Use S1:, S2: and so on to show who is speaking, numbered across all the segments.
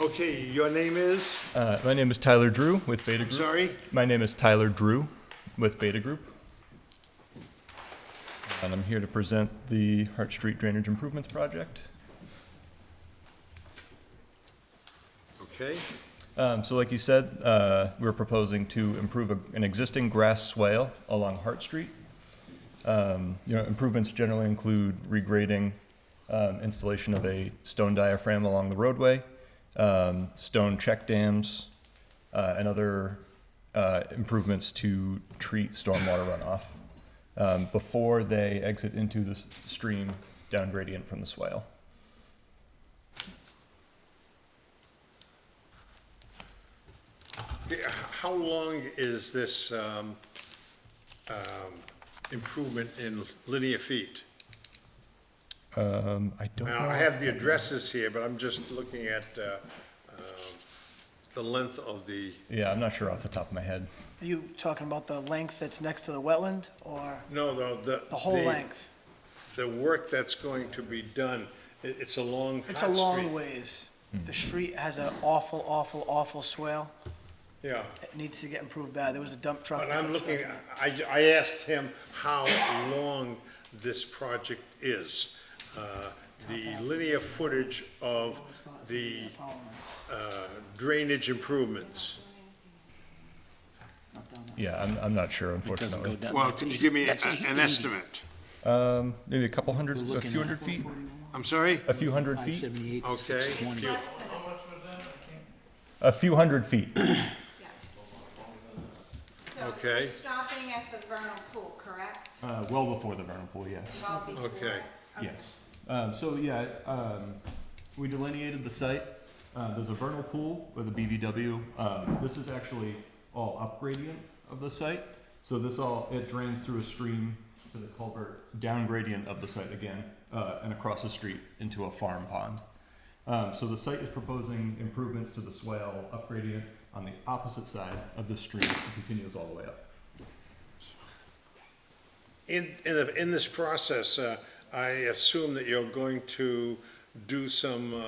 S1: Okay, your name is?
S2: Uh, my name is Tyler Drew with Beta Group.
S1: Sorry?
S2: My name is Tyler Drew with Beta Group. And I'm here to present the Hart Street Drainage Improvements Project.
S1: Okay,
S2: Um, so like you said, uh, we're proposing to improve a, an existing grass swale along Hart Street. Um, you know, improvements generally include regrading, um, installation of a stone diaphragm along the roadway, um, stone check dams, uh, and other uh, improvements to treat stormwater runoff um, before they exit into the s- stream down gradient from the swale.
S1: The- how long is this um, um, improvement in linear feet?
S2: Um, I don't know.
S1: Now, I have the addresses here, but I'm just looking at uh, um, the length of the,
S2: Yeah, I'm not sure off the top of my head.
S3: Are you talking about the length that's next to the wetland, or
S1: no, no, the.
S3: the whole length?
S1: The work that's going to be done, It- it's a long.
S3: It's a
S1: hot
S3: long
S1: street.
S3: ways.
S2: Hmm.
S3: The street has an awful, awful, awful swale.
S1: Yeah.
S3: It needs to get improved bad. There was a dump truck.
S1: But
S3: that
S1: I'm
S3: got stuck
S1: looking,
S3: in it.
S1: I, I asked him how long this project is. Uh, The linear footage of the uh, drainage improvements.
S2: Yeah, I'm, I'm not sure,
S4: It doesn't go
S2: unfortunately.
S4: down.
S1: Well, can you give me
S4: That's
S1: a- an
S4: 80.
S1: estimate?
S2: Um, maybe a couple hundred, a
S4: looking
S2: few
S4: at-
S2: hundred feet,
S1: I'm sorry?
S2: a few hundred feet,
S4: 578
S1: Okay.
S4: to 620.
S2: a few hundred feet.
S5: So it's
S1: Okay. Uh-huh.
S5: Stopping at the vernal pool, correct?
S2: Uh, well before the vernal pool, yes.
S5: Well before-
S1: Okay.
S2: Yes. Um, so yeah, um, we delineated the site. Uh, there's a vernal pool with a BVW. Um, this is actually all up gradient of the site. So this all, it drains through a stream to the culvert, down gradient of the site again, uh, and across the street into a farm pond. Um, so the site is proposing improvements to the swale up gradient on the opposite side of the stream. It continues all the way up.
S1: In, in, the- in this process, uh, I assume that you're going to do some uh,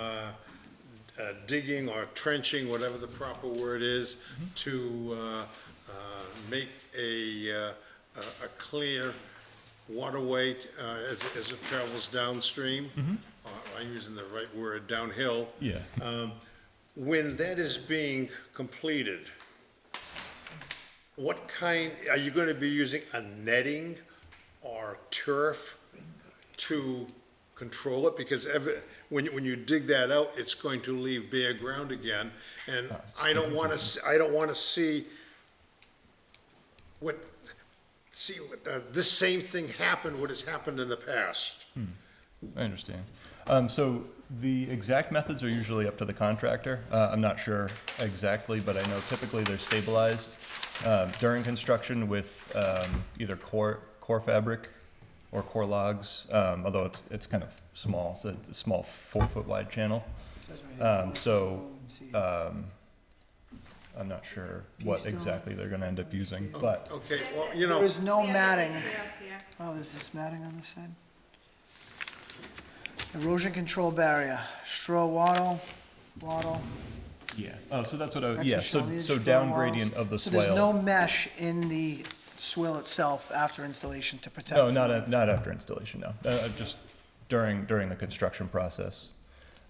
S1: uh, digging or trenching, whatever the proper word is, to uh, uh, make a, uh, a a clear waterway uh, as, as it travels downstream. Or I'm using the right word, downhill.
S2: Yeah.
S1: When that is being completed, what kind, are you going to be using a netting or turf to control it? Because every, when, you- when you dig that out, it's going to leave bare ground again. And I don't want to, I don't want to see what, see, uh, this same thing happen, what has happened in the past.
S2: I understand. Um, so the exact methods are usually up to the contractor. Uh, I'm not sure exactly, but I know typically they're stabilized um, during construction with um, either core core fabric or core logs. Um, although it's it's kind of small, it's a small four foot wide channel.
S3: It says right here,
S2: um, so, uh,
S3: four inches long, see.
S2: I'm not sure what
S3: Keystone?
S2: exactly they're going to end up using, but
S1: Okay, well, you know.
S3: There is no
S5: We have the
S3: matting.
S5: details here.
S3: Oh, there's this matting on this side? Erosion control barrier, straw wattle, wattle.
S2: yeah. Oh, so that's what I was,
S3: extra
S2: yeah. So
S3: foliage,
S2: so
S3: straw
S2: down
S3: walls.
S2: gradient of the
S3: So
S2: swale.
S3: there's no mesh in the swale itself after installation to protect?
S2: No, not, a- not after installation, no. Uh, just during, during the construction process.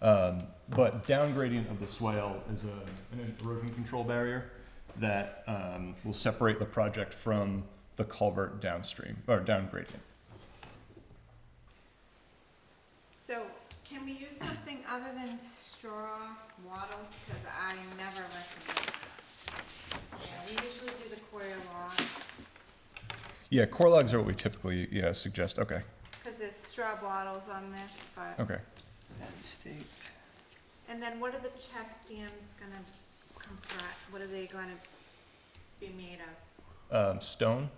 S2: Um, but down gradient of the swale is a, an erosion control barrier that, um, will separate the project from the culvert downstream, or down gradient.
S5: So can we use something other than straw wattles, because I never recommend that. Yeah, we usually do the coir logs,
S2: Yeah, core logs are what we typically, yeah, suggest, okay,
S5: because there's straw wattles on this,
S1: Oh.
S5: but,
S2: okay.
S3: Staked.
S5: and then what are the check dams gonna compri, what are they gonna be made of?
S2: Um, stone,